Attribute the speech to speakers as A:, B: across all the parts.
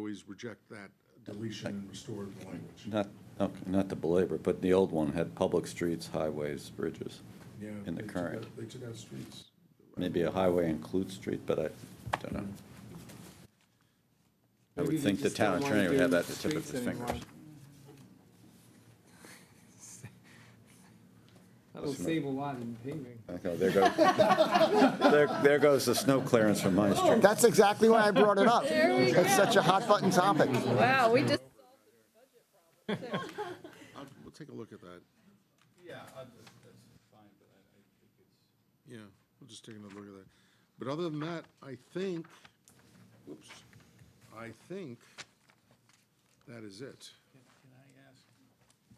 A: please reject that deletion and restore the language.
B: Not, okay, not to belabor, but the old one had public streets, highways, bridges.
A: Yeah,
B: In
A: they
B: the
A: took
B: current.
A: out- They took out streets.
B: Maybe a highway includes street, but I don't know. I
C: Maybe
B: would
C: they
B: think the
C: just don't
B: town
C: wanna
B: attorney would have
C: do
B: that at the tip of
C: streets
B: his
C: anymore.
B: fingers.
C: That'll save a lot in paving.
B: Okay, there goes, there, there goes the snow clearance from my street.
D: That's exactly why I brought it up.
E: There we
D: It's such a hot button topic.
E: Wow, Oh, we just.
A: I'll- We'll take a look at that. Yeah, we'll just take another look at that. But other than that, I think, whoops, I think that is it.
F: Can I ask,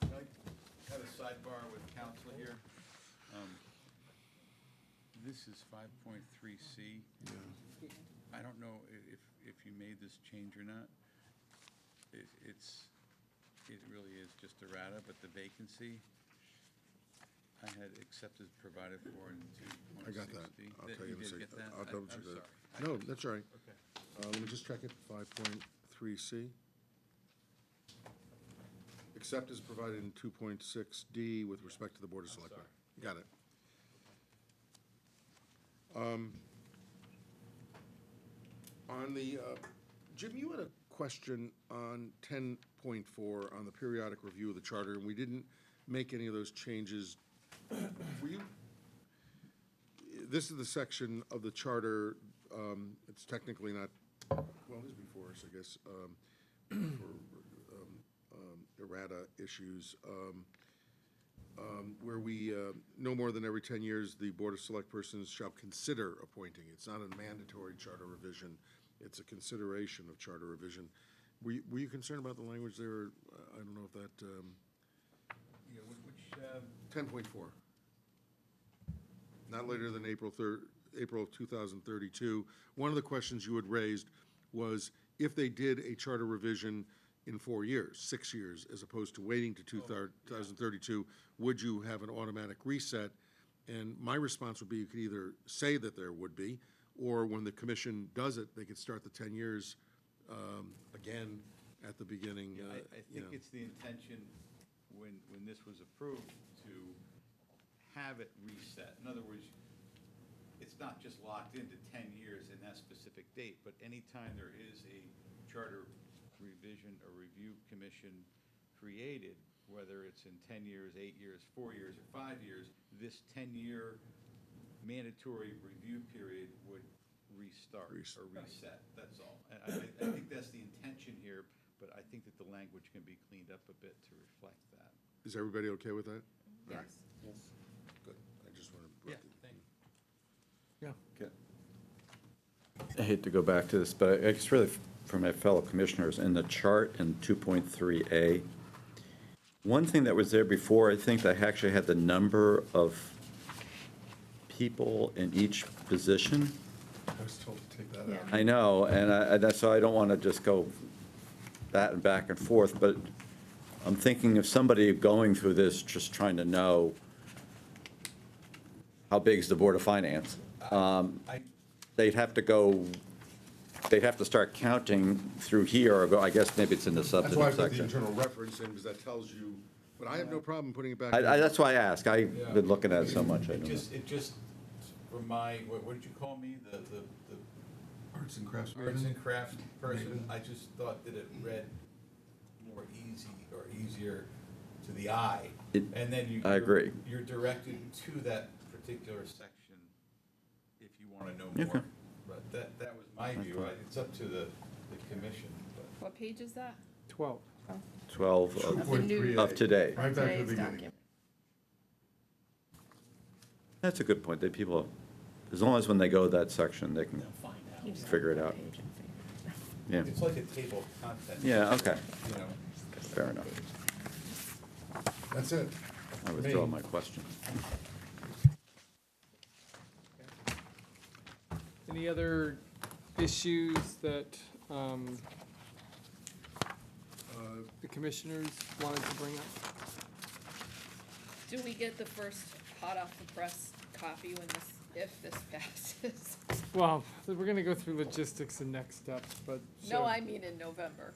F: can I have a sidebar with council here? Um, This is 5.3C. I don't know i- if, if you made this change or not. It- It's, it really is just errata, but the vacancy I had accepted provided for in
A: I got that.
F: 2.60.
A: I'll tell you in a
F: did
A: second.
F: get that?
A: I'll
F: I-
A: double check
F: I'm sorry.
A: that. No, that's all right. Uh, let me just check it, five point three C. Except as provided in two point six D with respect to the Board of Selectmen. Got it. Um, On the, uh, Jim, you had a question on ten point four on the periodic review of the charter, and we didn't make any of those changes. Were you this is the section of the charter, um, it's technically not, well, it is before us, I guess, um, for, um, um, errata issues, um, um, where we, uh, no more than every ten years, the Board of Select Persons shall consider appointing. It's not a mandatory charter revision, it's a consideration of charter revision. Were you, were you concerned about the language there? I I don't know if that, um,
F: Yeah, wh- Which, um,
A: ten point four. Not later than April third, April of two thousand thirty-two. One of the questions you had raised was if they did a charter revision in four years, six years, as opposed to waiting to
F: Oh,
A: two thousand thirty-two, would you have an automatic reset? And my response would be you could either say that there would be, or when the commission does it, they could start the ten years, um, again at the beginning. uh,
F: I, I
A: you
F: think
A: know.
F: it's the intention, when, when this was approved, to have it reset. In other words, it's not just locked into ten years and that specific date, but anytime there is a charter revision or review commission created, whether it's in ten years, eight years, four years, or five years, this ten-year mandatory review period would restart
A: Restart.
F: or reset, that's all. And I, I- I think that's the intention here, but I think that the language can be cleaned up a bit to reflect that.
A: Is everybody okay with that?
E: Yes.
A: Good, I just wanted to.
F: thank you.
B: I hate to go back to this, but it's really for my fellow commissioners, in the chart in 2.3A, one thing that was there before, I think they actually had the number of people in each position.
A: I was told to take that out.
B: I know, and I, and that's, so I don't want to just go that and back and forth, but I'm thinking of somebody going through this, just trying to know how big is the Board of Finance? Um, They'd have to go, they'd have to start counting through here, or go, I guess maybe it's in the
A: That's why I put
B: substantive
A: the
B: section.
A: internal reference in, because that tells you, but I have no problem putting it back.
B: I,
A: in.
B: I, that's why I ask, I've been looking at it so much, I
F: It
B: don't know.
F: just, it just remind, what, what did you call me, the, the, the
A: Arts and crafts.
F: arts and craft person? I just thought that it read more easy or easier to the eye.
B: It-
F: And then you.
B: I agree.
F: You're directed to that particular section if you want to know more.
B: Okay.
F: But that, that was my view. I- It's up to the, the commission, but.
E: What page is that?
C: Twelve.
B: 12 of-
E: The new-
B: of today.
A: Right back to the
E: Today's
A: beginning.
E: document.
B: That's a good point, that people, as long as when they go that section, they can
E: You just
B: Figure it
E: go to
B: out.
E: page and figure it out.
B: Yeah,
F: It's like a table of contents.
B: yeah, okay,
F: You know,
B: fair enough.
A: That's it.
B: I withdraw my question.
C: Any other issues that um, the commissioners wanted to bring up?
E: Do we get the first hot off the press copy when this if this passes.
C: Well, we're gonna go through logistics and next steps, but.
E: No,
C: so-
E: I mean in November.